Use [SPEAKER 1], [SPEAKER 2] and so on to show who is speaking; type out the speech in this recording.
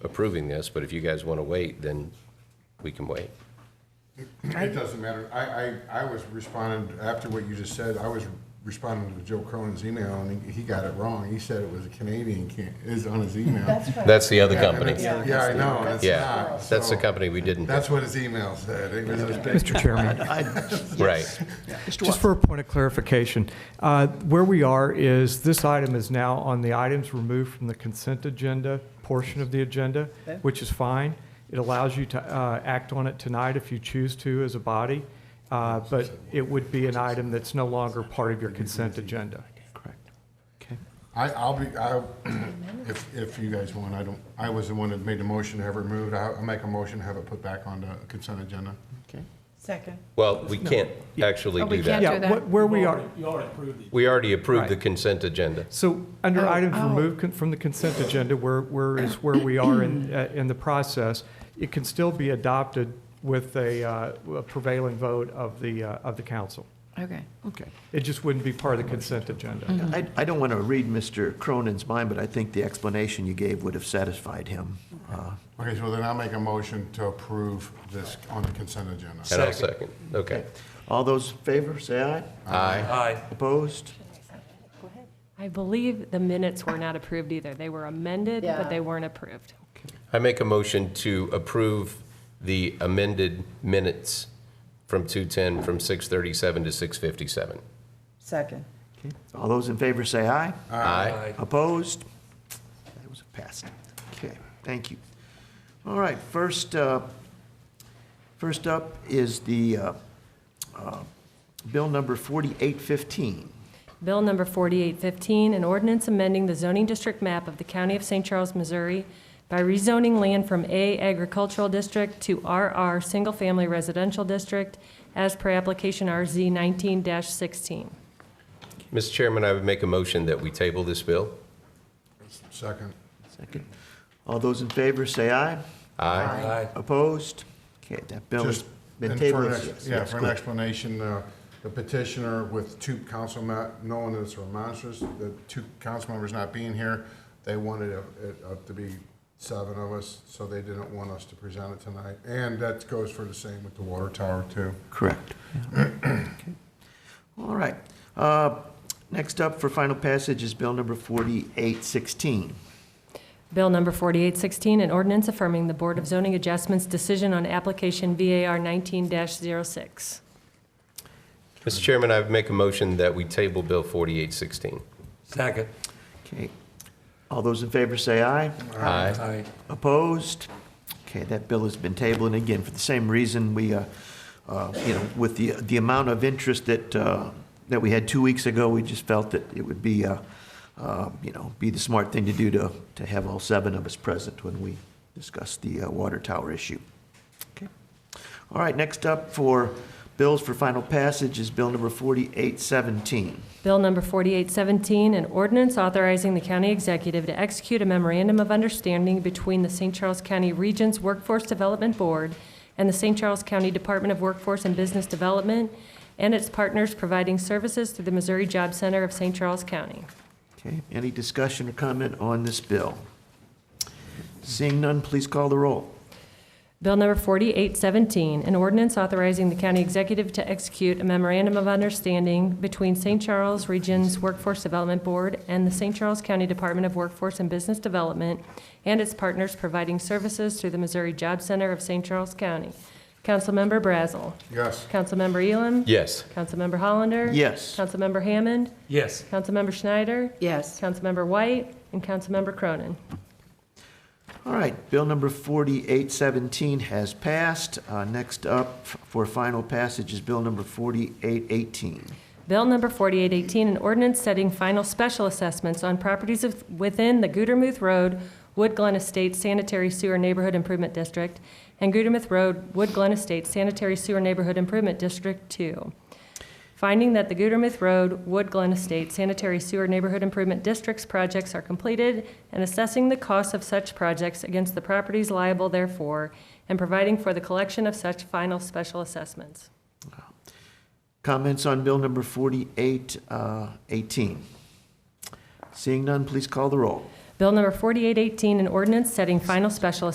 [SPEAKER 1] approving this, but if you guys want to wait, then we can wait.
[SPEAKER 2] It doesn't matter. I, I, I was responding, after what you just said, I was responding to Joe Cronin's email, and he, he got it wrong. He said it was a Canadian can, is on his email.
[SPEAKER 3] That's right.
[SPEAKER 1] That's the other
[SPEAKER 2] Yeah, and
[SPEAKER 1] company.
[SPEAKER 2] it's- Yeah, I know, it's
[SPEAKER 1] Yeah,
[SPEAKER 2] not.
[SPEAKER 1] that's the
[SPEAKER 2] so-
[SPEAKER 1] company we didn't,
[SPEAKER 2] That's what his email said. It was a big-
[SPEAKER 4] Mr. Chairman,
[SPEAKER 1] right.
[SPEAKER 4] just for a point of clarification, uh, where we are is this item is now on the items removed from the consent agenda portion of the agenda, which is fine. It allows you to uh, act on it tonight if you choose to as a body, uh, but it would be an item that's no longer part of your consent agenda.
[SPEAKER 5] Correct. Okay.
[SPEAKER 2] I, I'll be, I, if, if you guys want, I don't, I was the one that made the motion to have it removed. I- I'll make a motion to have it put back on the consent agenda.
[SPEAKER 5] Okay.
[SPEAKER 3] Second.
[SPEAKER 1] Well, we can't actually
[SPEAKER 6] Oh, we
[SPEAKER 1] do
[SPEAKER 6] can't
[SPEAKER 1] that.
[SPEAKER 6] do
[SPEAKER 4] Yeah,
[SPEAKER 6] that.
[SPEAKER 4] what- where we are,
[SPEAKER 1] We already approved the
[SPEAKER 4] Right.
[SPEAKER 1] consent agenda.
[SPEAKER 4] So under
[SPEAKER 6] Oh,
[SPEAKER 4] items
[SPEAKER 6] oh.
[SPEAKER 4] removed con- from the consent agenda, where, where is where we are in, uh, in the process, it can still be adopted with a uh, a prevailing vote of the, uh, of the council.
[SPEAKER 6] Okay. Mm-hmm.
[SPEAKER 5] Okay.
[SPEAKER 4] It just wouldn't be part of the consent agenda.
[SPEAKER 5] I, I don't want to read Mr. Cronin's mind, but I think the explanation you gave would have satisfied him. Uh,
[SPEAKER 2] Okay, so then I'll make a motion to approve this on the consent agenda.
[SPEAKER 1] And I'll second. Okay.
[SPEAKER 5] All those in favor, say aye.
[SPEAKER 1] Aye.
[SPEAKER 7] Aye.
[SPEAKER 5] Opposed?
[SPEAKER 8] I believe the minutes were not approved either. They were amended,
[SPEAKER 3] Yeah.
[SPEAKER 8] but they weren't approved.
[SPEAKER 1] I make a motion to approve the amended minutes from 210, from 637 to 657.
[SPEAKER 3] Second.
[SPEAKER 5] Okay. All those in favor, say aye.
[SPEAKER 1] Aye.
[SPEAKER 5] Opposed? That was passed. Okay, thank you. All right, first, uh, first up is the uh, uh, bill number 4815.
[SPEAKER 8] Bill number 4815, an ordinance amending the zoning district map of the County of St. Charles, Missouri by rezoning land from A Agricultural District to RR Single Family Residential District as per application RZ 19-16.
[SPEAKER 1] Mr. Chairman, I would make a motion that we table this bill.
[SPEAKER 2] Second.
[SPEAKER 5] Second. All those in favor, say aye.
[SPEAKER 1] Aye.
[SPEAKER 7] Aye.
[SPEAKER 5] Opposed? Okay, that bill has
[SPEAKER 2] Just
[SPEAKER 5] been
[SPEAKER 2] and for
[SPEAKER 5] tabled.
[SPEAKER 2] an
[SPEAKER 5] Yes,
[SPEAKER 2] ex- Yeah,
[SPEAKER 5] that's
[SPEAKER 2] for an
[SPEAKER 5] good.
[SPEAKER 2] explanation, uh, the petitioner with two council, ma- knowing that it's monstrous, the two council members not being here, they wanted it it up to be seven of us, so they didn't want us to present it tonight. And that goes for the same with the water tower, too.
[SPEAKER 5] Correct. Okay. All right. Uh, Next up for final passage is bill number 4816.
[SPEAKER 8] Bill number 4816, an ordinance affirming the Board of Zoning Adjustments decision on application VAR 19-06.
[SPEAKER 1] Mr. Chairman, I would make a motion that we table Bill 4816.
[SPEAKER 7] Second.
[SPEAKER 5] Okay. All those in favor, say aye.
[SPEAKER 1] Aye.
[SPEAKER 7] Aye.
[SPEAKER 5] Opposed? Okay, that bill has been tabled, and again, for the same reason, we, uh, uh, you know, with the, the amount of interest that, uh, that we had two weeks ago, we just felt that it would be, uh, uh, you know, be the smart thing to do to, to have all seven of us present when we discuss the uh, water tower issue. Okay. All right, next up for bills for final passage is bill number 4817.
[SPEAKER 8] Bill number 4817, an ordinance authorizing the county executive to execute a memorandum of understanding between the St. Charles County Region's Workforce Development Board and the St. Charles County Department of Workforce and Business Development and its partners providing services through the Missouri Job Center of St. Charles County.
[SPEAKER 5] Okay, any discussion or comment on this bill? Seeing none, please call the roll.
[SPEAKER 8] Bill number 4817, an ordinance authorizing the county executive to execute a memorandum of understanding between St. Charles Region's Workforce Development Board and the St. Charles County Department of Workforce and Business Development and its partners providing services through the Missouri Job Center of St. Charles County. Councilmember Brazel.
[SPEAKER 2] Yes.
[SPEAKER 8] Councilmember Elam.
[SPEAKER 1] Yes.
[SPEAKER 8] Councilmember Hollander.
[SPEAKER 5] Yes.
[SPEAKER 8] Councilmember Hammond.
[SPEAKER 7] Yes.
[SPEAKER 8] Councilmember Schneider.
[SPEAKER 3] Yes.
[SPEAKER 8] Councilmember White. And Councilmember Cronin.
[SPEAKER 5] All right, bill number 4817 has passed. Uh, Next up for final passage is bill number 4818.
[SPEAKER 8] Bill number 4818, an ordinance setting final special assessments on properties of- within the Gudermouth Road, Wood Glen Estates Sanitary Sewer Neighborhood Improvement District, and Gudermouth Road, Wood Glen Estates Sanitary Sewer Neighborhood Improvement District 2. Finding that the Gudermouth Road, Wood Glen Estates Sanitary Sewer Neighborhood Improvement District's projects are completed, and assessing the costs of such projects against the properties liable therefore, and providing for the collection of such final special assessments.
[SPEAKER 5] Comments on bill number uh, 4818? Seeing none, please call the roll.
[SPEAKER 8] Bill number 4818, an ordinance setting final special